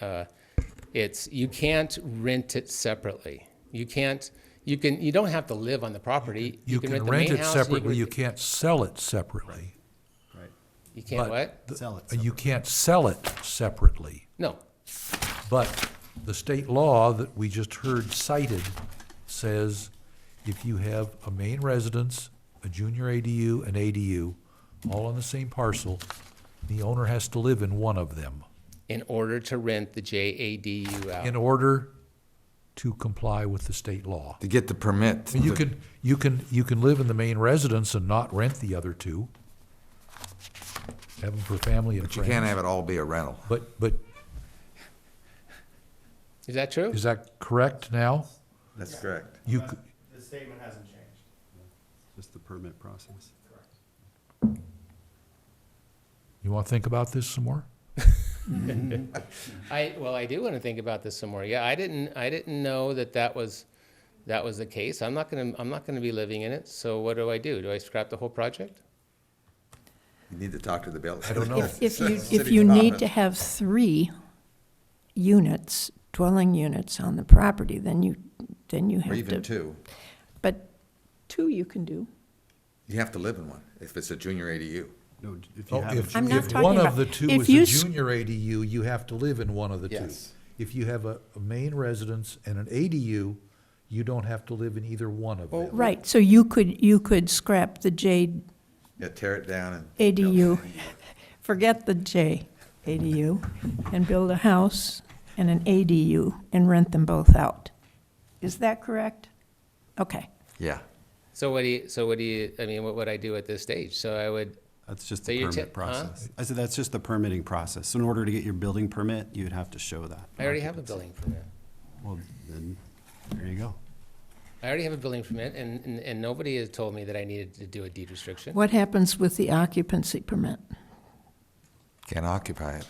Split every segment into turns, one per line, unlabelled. Uh, It's, you can't rent it separately. You can't, you can, you don't have to live on the property.
You can
the
rent
main
it
house and
separately,
can-
you can't sell it separately.
Right.
You can't
but
what?
the-
Sell it
uh, You can't sell it separately,
No,
but the state law that we just heard cited says if you have a main residence, a junior ADU, an ADU, all on the same parcel, the owner has to live in one of them
in order to rent the JADU out.
in order to comply with the state law.
To get the permit.
I mean, You
to-
can, you can, you can live in the main residence and not rent the other two. Have them for family and
But you can't
friends.
have it all be a rental.
But, but
Is that true?
is that correct now?
That's correct.
You, c-
The statement hasn't changed.
Just the permit process.
you want to think about this some more?
I, well, I do want to think about this some more. Yeah, I didn't, I didn't know that that was, that was the case. I'm not gonna, I'm not gonna be living in it, so what do I do? Do I scrap the whole project?
You need to talk to the building.
I don't know.
If, if you,
City
if you need to
department.
have three units, dwelling units on the property, then you, then you
Or
have
even
to.
two.
But two you can do.
You have to live in one if it's a junior ADU.
No, if you
Oh,
have. a
If,
I'm not
if
talking
one of
about-
the two
if
is
you
a
s-
junior ADU, you have to live in one of the two.
Yes.
If you have a, a main residence and an ADU, you don't have to live in either one of them.
Right, so you could, you could scrap the J
Yeah, tear it down and.
ADU, forget the J ADU, and build a house and an ADU and rent them both out. Is that correct? Okay.
Yeah.
So what do you, so what do you, I mean, what would I do at this stage? So I would,
That's just
So
the
you're
permit
ta- huh?
process. I said, that's just the permitting process. So in order to get your building permit, you'd have to show that.
I already have a building permit.
Well, then, there you go.
I already have a building permit, and, and, and nobody has told me that I needed to do a deed restriction.
What happens with the occupancy permit?
Can't occupy it.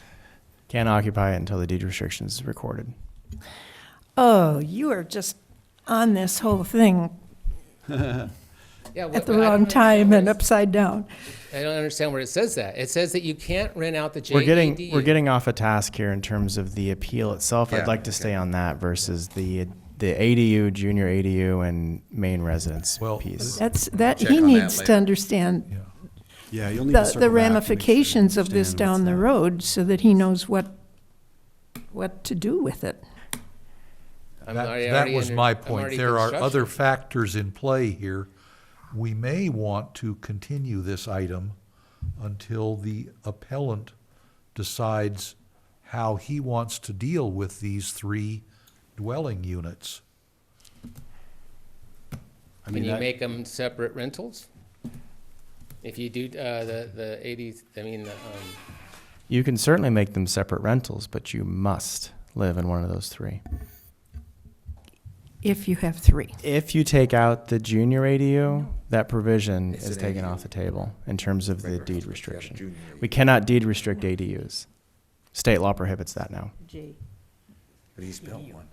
Can't occupy it until the deed restriction is recorded.
Oh, you are just on this whole thing
Yeah,
at
what-
the
I don't
wrong
understand
time
where
and
it's-
upside down.
I don't understand where it says that. It says that you can't rent out the E JADU.
E
We're getting, we're getting off a task here in terms of the appeal itself.
Yeah,
I'd like to
okay.
stay on that versus the, the ADU, junior ADU and main residence
Well,
uh,
piece.
That's, that,
Check
he
on that
needs to
later.
understand
Yeah.
Yeah, you'll need to circle back to
the the
make sure you
ramifications of this
understand what's
down the
happening.
road so that he knows what, what to do with it.
I'm
That,
already-
that
already
was
under-
my
I'm
point.
already
There are other
construction.
factors in play here. We may want to continue this item until the appellant decides how he wants to deal with these three dwelling units.
I
Can
mean,
you
that-
make them separate rentals? If you do, uh, the, the eighty, I mean, the, um,
You can certainly make them separate rentals, but you must live in one of those three.
If you have three.
If you take out the junior ADU, that provision
It's
is
an
taken
ADU.
off the table in terms of the
Regular house, but you
deed
have a
restriction.
junior
We
ADU.
cannot deed restrict ADUs. State law prohibits that now.
But he's built one.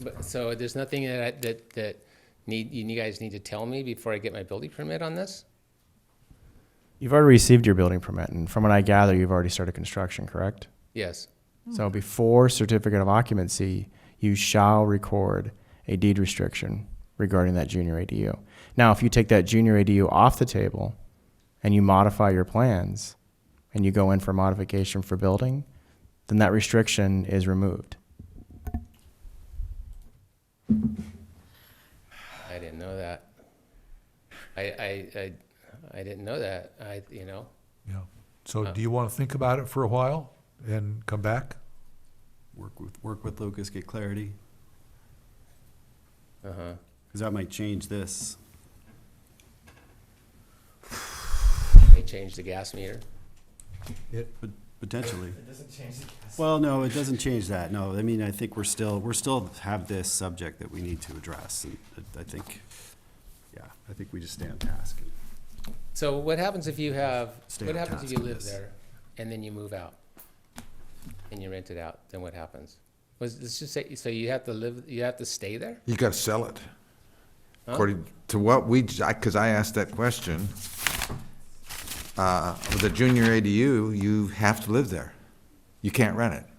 but- so there's nothing that, I- that, that need, you guys need to tell me before I get my building permit on this?
You've already received your building permit, and from what I gather, you've already started construction, correct?
Yes.
So before certificate of occupancy, you shall record a deed restriction regarding that junior ADU. Now, if you take that junior ADU off the table and you modify your plans and you go in for modification for building, then that restriction is removed.
I didn't know that. I, I, I, I didn't know that. I, you know,
Yeah. So
Uh.
do you want to think about it for a while and come back?
Work with, work with Lucas, get clarity,
uh-huh.
because that might change this.
They changed the gas meter.
Pot- Potentially. It doesn't change the. Well, no, it doesn't change that, no. I mean, I think we're still, we're still have this subject that we need to address, and I- I think, yeah, I think we just stay on task.
So what happens if you have,
Stay
what
on
happens if
task
you
on
live
this.
there and then you move out? And you rent it out, then what happens? Was, let's just say, so you have to live, you have to stay there?
You gotta sell it.
Huh?
According to what we, j- I, cause I asked that question. Uh, with a junior ADU, you have to live there. You can't rent it.